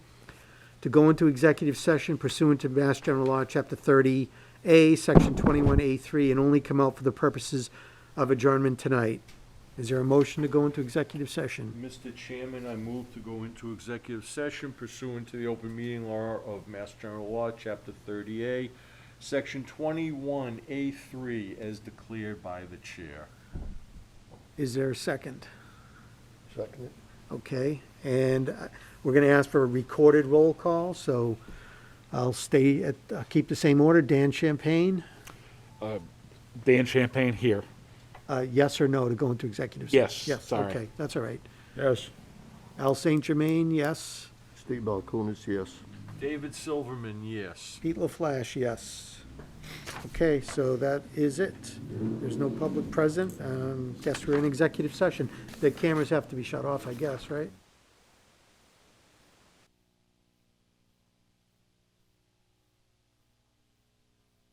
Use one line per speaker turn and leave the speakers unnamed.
to go into executive session pursuant to Mass General Law, Chapter 30A, Section 21A3, and only come out for the purposes of adjournment tonight. Is there a motion to go into executive session?
Mr. Chairman, I move to go into executive session pursuant to the open meeting law of Mass General Law, Chapter 30A, Section 21A3, as declared by the chair.
Is there a second?
Second it.
Okay, and uh, we're going to ask for a recorded roll call, so I'll stay at, I'll keep the same order. Dan Champagne,
Dan Champagne here.
uh, yes or no to go into executive session?
Yes, sorry.
Yes, okay, that's all right.
Yes.
Al St. Germain, yes.
Steve Balcoonis, yes.
David Silverman, yes.
Pete LaFlash, yes. Okay, so that is it. There's no public present. Um, Guess we're in executive session. The cameras have to be shut off, I guess, right?